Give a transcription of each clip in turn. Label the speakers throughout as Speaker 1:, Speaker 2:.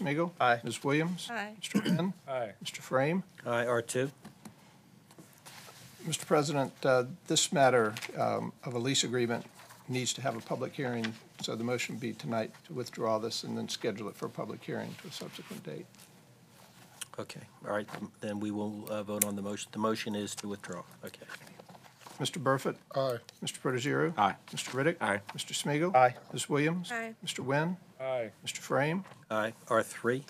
Speaker 1: Ms. Smigiel,
Speaker 2: Aye.
Speaker 1: Ms. Williams.
Speaker 3: Aye.
Speaker 1: Mr. Penn.
Speaker 4: Aye.
Speaker 1: Mr. Frame.
Speaker 2: Aye, R2.
Speaker 1: Mr. President, uh, this matter um, of a lease agreement needs to have a public hearing, so the motion would be tonight to withdraw this and then schedule it for a public hearing to a subsequent date.
Speaker 2: Okay, all right, then we will uh, vote on the motion. The motion is to withdraw. Okay.
Speaker 1: Mr. Burford.
Speaker 4: Aye.
Speaker 1: Mr. Protogiru.
Speaker 5: Aye.
Speaker 1: Mr. Riddick.
Speaker 5: Aye.
Speaker 1: Mr. Smigiel,
Speaker 2: Aye.
Speaker 1: Ms. Williams.
Speaker 3: Aye.
Speaker 1: Mr. Wynn.
Speaker 4: Aye.
Speaker 1: Mr. Frame.
Speaker 2: Aye, R3.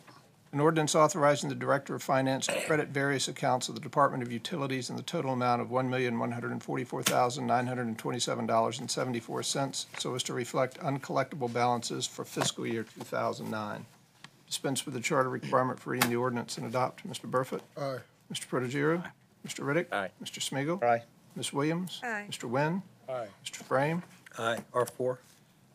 Speaker 1: An ordinance authorizing the Director of Finance to credit various accounts of the Department of Utilities in the total amount of $1,144,927.74 so as to reflect uncollectible balances for fiscal year 2009. Dispense with the charter requirement for reading the ordinance and adopt. Mr. Burford?
Speaker 4: Aye.
Speaker 1: Mr. Protogiru? Mr. Riddick?
Speaker 2: Aye.
Speaker 1: Mr. Smigiel,
Speaker 2: Aye.
Speaker 1: Ms. Williams?
Speaker 3: Aye.
Speaker 1: Mr. Wynn?
Speaker 4: Aye.
Speaker 1: Mr. Frame?
Speaker 2: Aye, R4.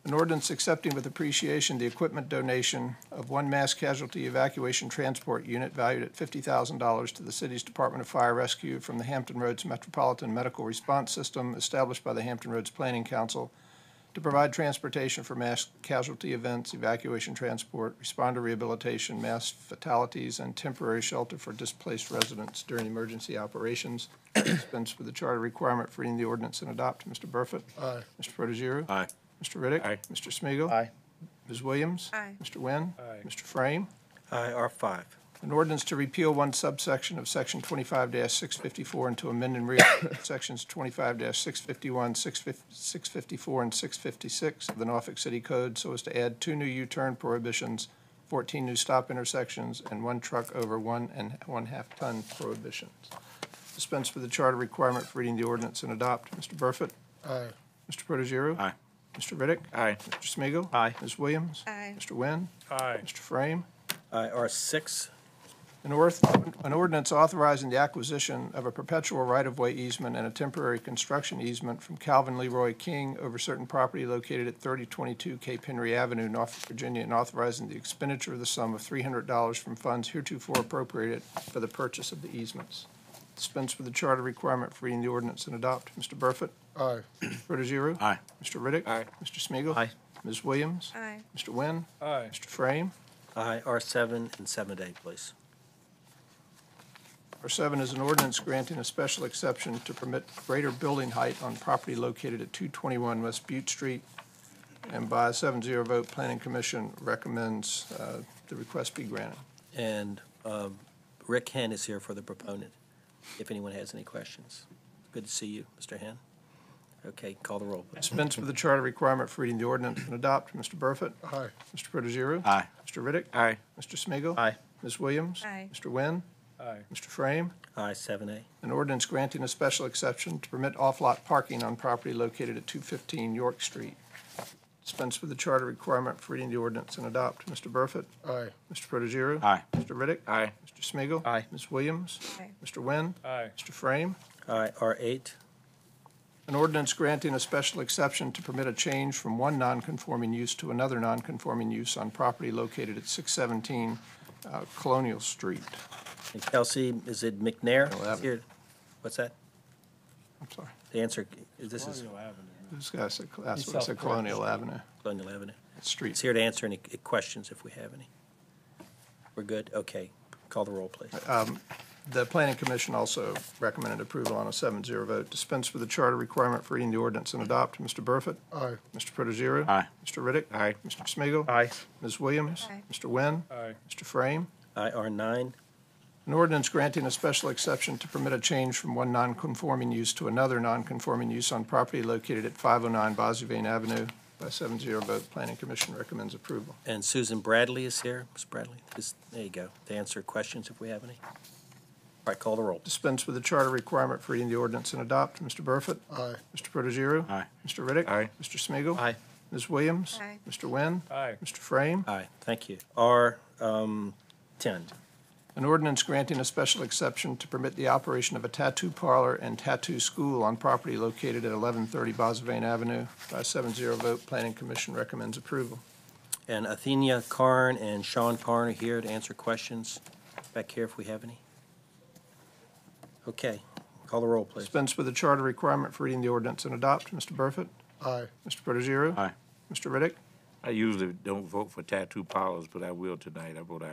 Speaker 1: An ordinance accepting with appreciation the equipment donation of one mass casualty evacuation transport unit valued at fifty thousand dollars to the city's Department of Fire Rescue from the Hampton Roads Metropolitan Medical Response System established by the Hampton Roads Planning Council to provide transportation for mass casualty events, evacuation transport, responder rehabilitation, mass fatalities, and temporary shelter for displaced residents during emergency operations. Dispense with the charter requirement for reading the ordinance and adopt. Mr. Burford?
Speaker 4: Aye.
Speaker 1: Mr. Protogiru?
Speaker 5: Aye.
Speaker 1: Mr. Riddick.
Speaker 5: Aye.
Speaker 1: Mr. Smigiel,
Speaker 2: Aye.
Speaker 1: Ms. Williams.
Speaker 3: Aye.
Speaker 1: Mr. Wynn.
Speaker 4: Aye.
Speaker 1: Mr. Frame.
Speaker 2: Aye, R5.
Speaker 1: An ordinance to repeal one subsection of Section 25-654 and to amend and rewrite Sections 25-651, 654, and 656 of the Norfolk City Code so as to add two new U-turn prohibitions, 14 new stop intersections, and one truck over one and one-half ton prohibitions. Dispense with the charter requirement for reading the ordinance and adopt. Mr. Burford.
Speaker 4: Aye.
Speaker 1: Mr. Protogiru.
Speaker 5: Aye.
Speaker 1: Mr. Riddick.
Speaker 5: Aye.
Speaker 1: Mr. Smigiel,
Speaker 5: Aye.
Speaker 1: Ms. Williams.
Speaker 3: Aye.
Speaker 1: Mr. Wynn.
Speaker 4: Aye.
Speaker 1: Mr. Frame.
Speaker 2: Aye, R6.
Speaker 1: An orth- an ordinance authorizing the acquisition of a perpetual right-of-way easement and a temporary construction easement from Calvin Leroy King over certain property located at 3022 Cape Henry Avenue, Norfolk, Virginia, and authorizing the expenditure of the sum of $300 from funds heretofore appropriated for the purchase of the easements. Dispense with the charter requirement for reading the ordinance and adopt. Mr. Burford?
Speaker 4: Aye.
Speaker 1: Protogiru?
Speaker 5: Aye.
Speaker 1: Mr. Riddick?
Speaker 5: Aye.
Speaker 1: Mr. Smigiel,
Speaker 2: Aye.
Speaker 1: Ms. Williams?
Speaker 3: Aye.
Speaker 1: Mr. Wynn?
Speaker 4: Aye.
Speaker 1: Mr. Frame.
Speaker 2: Aye, R7 and 7A, please.
Speaker 1: R7 is an ordinance granting a special exception to permit greater building height on property located at 221 West Butte Street. And by a 7-0 vote, Planning Commission recommends uh, the request be granted.
Speaker 2: And um, Rick Hen is here for the proponent, if anyone has any questions. Good to see you, Mr. Hen. Okay, call the roll, please.
Speaker 1: Dispense with the charter requirement for reading the ordinance and adopt. Mr. Burford?
Speaker 4: Aye.
Speaker 1: Mr. Protogiru?
Speaker 5: Aye.
Speaker 1: Mr. Riddick?
Speaker 5: Aye.
Speaker 1: Mr. Smigiel,
Speaker 2: Aye.
Speaker 1: Ms. Williams?
Speaker 3: Aye.
Speaker 1: Mr. Wynn?
Speaker 4: Aye.
Speaker 1: Mr. Frame?
Speaker 2: Aye, 7A.
Speaker 1: An ordinance granting a special exception to permit off-lot parking on property located at 215 York Street. Dispense with the charter requirement for reading the ordinance and adopt. Mr. Burford?
Speaker 4: Aye.
Speaker 1: Mr. Protogiru?
Speaker 5: Aye.
Speaker 1: Mr. Riddick?
Speaker 5: Aye.
Speaker 1: Mr. Smigiel,
Speaker 5: Aye.
Speaker 1: Ms. Williams?
Speaker 3: Aye.
Speaker 1: Mr. Wynn?
Speaker 4: Aye.
Speaker 1: Mr. Frame?
Speaker 2: Aye, R8.
Speaker 1: An ordinance granting a special exception to permit a change from one nonconforming use to another nonconforming use on property located at 617 uh, Colonial Street.
Speaker 2: And Kelsey, is it McNair?
Speaker 1: Eleven.
Speaker 2: Is here? What's that?
Speaker 1: I'm sorry,
Speaker 2: The answer, this is
Speaker 1: this guy said, that's what I said, Colonial Avenue,
Speaker 2: Colonial Avenue.
Speaker 1: Street.
Speaker 2: It's here to answer any questions if we have any. We're good? Okay, call the roll, please.
Speaker 1: The Planning Commission also recommended approval on a 7-0 vote. Dispense with the charter requirement for reading the ordinance and adopt. Mr. Burford?
Speaker 4: Aye.
Speaker 1: Mr. Protogiru?
Speaker 5: Aye.
Speaker 1: Mr. Riddick?
Speaker 5: Aye.
Speaker 1: Mr. Smigiel,
Speaker 5: Aye.
Speaker 1: Ms. Williams?
Speaker 3: Aye.
Speaker 1: Mr. Wynn?
Speaker 4: Aye.
Speaker 1: Mr. Frame?
Speaker 2: Aye, R9.
Speaker 1: An ordinance granting a special exception to permit a change from one nonconforming use to another nonconforming use on property located at 509 Bosavine Avenue. By 7-0 vote, Planning Commission recommends approval.
Speaker 2: And Susan Bradley is here. Ms. Bradley, this- there you go, to answer questions if we have any. All right, call the roll.
Speaker 1: Dispense with the charter requirement for reading the ordinance and adopt. Mr. Burford?
Speaker 4: Aye.
Speaker 1: Mr. Protogiru?
Speaker 5: Aye.
Speaker 1: Mr. Riddick?
Speaker 5: Aye.
Speaker 1: Mr. Smigiel,
Speaker 2: Aye.
Speaker 1: Ms. Williams?
Speaker 3: Aye.
Speaker 1: Mr. Wynn?
Speaker 4: Aye.
Speaker 1: Mr. Frame?
Speaker 2: Aye, thank you. um, R10.
Speaker 1: An ordinance granting a special exception to permit the operation of a tattoo parlor and tattoo school on property located at 1130 Bosavane Avenue. By a 7-0 vote, Planning Commission recommends approval.
Speaker 2: And Athenia Carn and Sean Carn are here to answer questions. Back here if we have any. Okay, call the roll, please.
Speaker 1: Dispense with the charter requirement for reading the ordinance and adopt. Mr. Burford?
Speaker 4: Aye.
Speaker 1: Mr. Protogiru?
Speaker 5: Aye.
Speaker 1: Mr. Riddick?
Speaker 3: I usually don't vote for tattoo parlors, but I will tonight. I vote